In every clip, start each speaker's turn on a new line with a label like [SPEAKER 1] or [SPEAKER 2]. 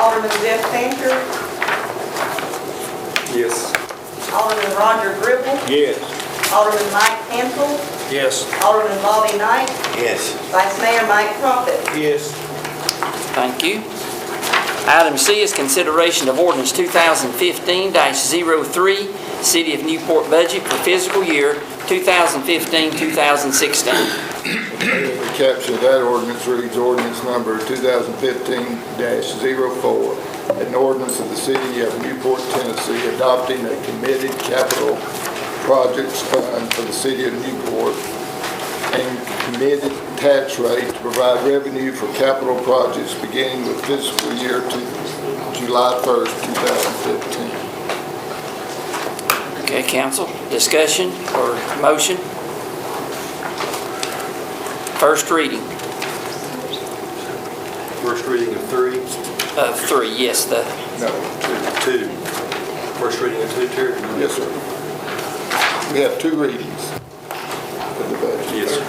[SPEAKER 1] Alderman Jeff Fancher,
[SPEAKER 2] Yes.
[SPEAKER 1] Alderman Roger Gribble,
[SPEAKER 2] Yes.
[SPEAKER 1] Alderman Mike Hansel,
[SPEAKER 2] Yes.
[SPEAKER 1] Alderman Bobby Knight,
[SPEAKER 2] Yes.
[SPEAKER 1] Vice Mayor Mike Profit.
[SPEAKER 2] Yes.
[SPEAKER 3] Thank you. Item C is consideration of ordinance 2015-03, City of Newport budget for fiscal year 2015-2016.
[SPEAKER 4] The caption of that ordinance reads ordinance number 2015-04, an ordinance of the city of Newport, Tennessee, adopting a committed capital projects fund for the city of Newport and committed tax rate to provide revenue for capital projects beginning with fiscal year to July 1st, 2015.
[SPEAKER 3] Okay, council, discussion or motion? First reading
[SPEAKER 2] First reading of three,
[SPEAKER 3] of three, yes, the,
[SPEAKER 4] No,
[SPEAKER 2] two. First reading of two, Terry?
[SPEAKER 4] yes, sir. We have two readings for the budget.
[SPEAKER 2] Yes, sir.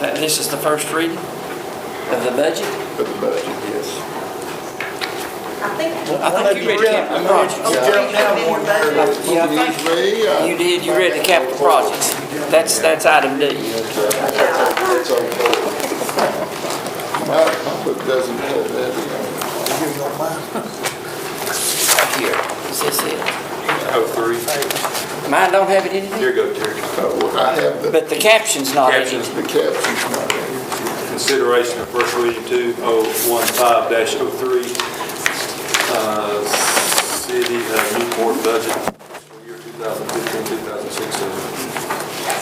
[SPEAKER 3] uh, this is the first reading of the budget?
[SPEAKER 4] For the budget, yes.
[SPEAKER 1] I think. oh,
[SPEAKER 3] I think you read capital projects. Yeah, I think
[SPEAKER 4] uh,
[SPEAKER 3] You did, you read the capital projects. That's, that's item D.
[SPEAKER 4] That's on board. My my book doesn't have that.
[SPEAKER 3] Here, is this it?
[SPEAKER 2] Oh, three.
[SPEAKER 3] Mine don't have it in it,
[SPEAKER 2] Here you go, Terry.
[SPEAKER 4] Oh, I have the,
[SPEAKER 3] but the caption's not in it.
[SPEAKER 2] Captions.
[SPEAKER 4] the captions not in.
[SPEAKER 2] Consideration of first reading two oh one five dash oh three, uh, City of Newport budget for year 2015-2016.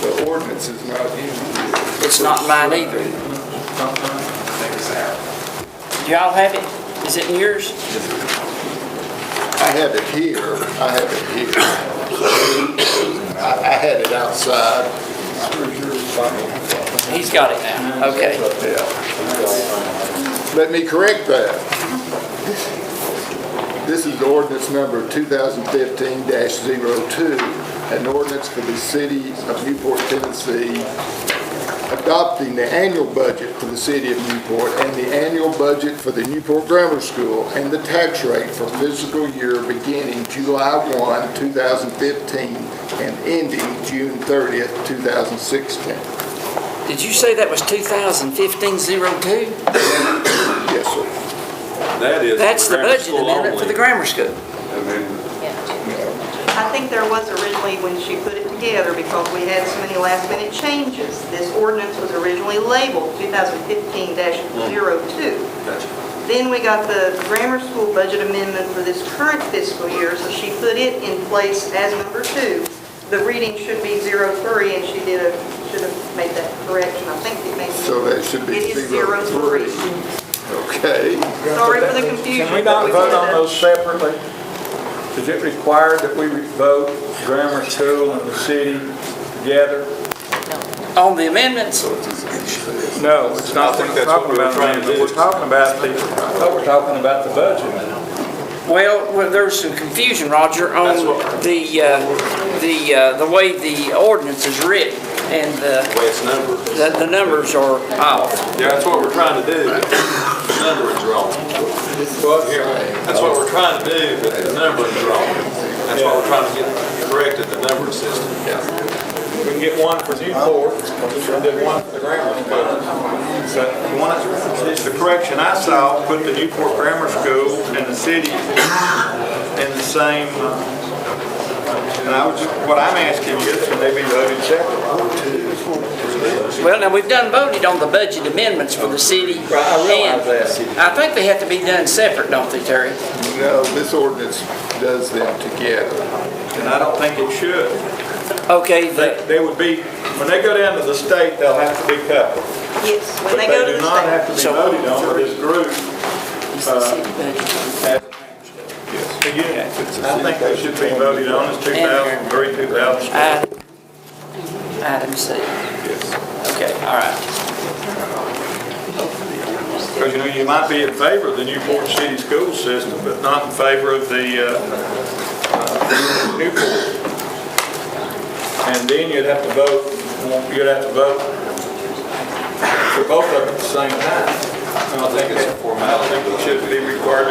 [SPEAKER 4] The ordinance is not in. here.
[SPEAKER 3] It's not mine either. Do y'all have it? Is it in yours?
[SPEAKER 4] I have it here, I have it here. I, I had it outside.
[SPEAKER 3] He's got it
[SPEAKER 2] Mm-hmm.
[SPEAKER 3] now. Okay.
[SPEAKER 4] Let me correct that. This is ordinance number 2015-02, an ordinance for the city of Newport, Tennessee, adopting the annual budget for the city of Newport and the annual budget for the Newport Grammar School and the tax rate for fiscal year beginning July 1, 2015, and ending June 30th, 2016.
[SPEAKER 3] Did you say that was 2015-02?
[SPEAKER 4] Yes, sir.
[SPEAKER 2] That is.
[SPEAKER 3] That's the
[SPEAKER 2] grammar
[SPEAKER 3] budget
[SPEAKER 2] school
[SPEAKER 3] amendment for the
[SPEAKER 2] only.
[SPEAKER 3] grammar school.
[SPEAKER 2] I
[SPEAKER 1] I think there was originally when she put it together because we had so many last minute changes. This ordinance was originally labeled 2015-02.
[SPEAKER 2] mean, gotcha.
[SPEAKER 1] Then we got the grammar school budget amendment for this current fiscal year, so she put it in place as number two. The reading should be 03, and she did a, should have made that correction. I think it made.
[SPEAKER 4] So that should be
[SPEAKER 1] It is
[SPEAKER 4] zero
[SPEAKER 1] 03.
[SPEAKER 4] three. Okay.
[SPEAKER 1] Sorry for the confusion.
[SPEAKER 5] Can we
[SPEAKER 1] but
[SPEAKER 5] not vote
[SPEAKER 1] did
[SPEAKER 5] on
[SPEAKER 1] that.
[SPEAKER 5] those separately? Is it required that we vote grammar school and the city together?
[SPEAKER 3] On the amendments,
[SPEAKER 5] No, it's not
[SPEAKER 2] I think
[SPEAKER 5] what we're
[SPEAKER 2] that's what
[SPEAKER 5] talking
[SPEAKER 2] we were
[SPEAKER 5] about,
[SPEAKER 2] trying to
[SPEAKER 5] amendment.
[SPEAKER 2] do.
[SPEAKER 5] we're talking about the, I thought we're talking about the budget.
[SPEAKER 3] well, well, there was some confusion, Roger, on
[SPEAKER 2] That's what-
[SPEAKER 3] the, uh, the, uh, the way the ordinance is written and the,
[SPEAKER 2] The way it's numbered.
[SPEAKER 3] the the numbers are off.
[SPEAKER 2] Yeah, that's what we're trying to do. The Numbering's wrong. That's what we're trying to do, but the numbering's wrong. That's why we're trying to get corrected, the numbering system.
[SPEAKER 5] We can get one for Newport, and then one for the grammar school. So one, the correction I saw, put the Newport Grammar School and the city in the same, uh, and I was, what I'm asking is, can they be voted separately?
[SPEAKER 3] Well, now, we've done voted on the budget amendments for the city.
[SPEAKER 5] Right, I realize
[SPEAKER 3] and I think they have to be done separate, don't they, Terry?
[SPEAKER 4] No, this ordinance does them together.
[SPEAKER 5] And I don't think it should.
[SPEAKER 3] Okay,
[SPEAKER 5] They,
[SPEAKER 3] the,
[SPEAKER 5] they would be, when they go down to the state, they'll have to be coupled.
[SPEAKER 1] Yes, when
[SPEAKER 5] But
[SPEAKER 1] they
[SPEAKER 5] they
[SPEAKER 1] go to
[SPEAKER 5] do not
[SPEAKER 1] the
[SPEAKER 5] have
[SPEAKER 1] state.
[SPEAKER 5] to be
[SPEAKER 3] So-
[SPEAKER 5] voted on with this group.
[SPEAKER 3] it's the city budget.
[SPEAKER 5] as a unit. I think they should be voted on as 2003, 2004.
[SPEAKER 3] Item item C. Okay, all right.
[SPEAKER 5] Because, you know, you might be in favor of the Newport City School System, but not in favor of the uh, uh, Newport. And then you'd have to vote, you'd have to vote for both of them at the same time. And I think it's a formality that should be required to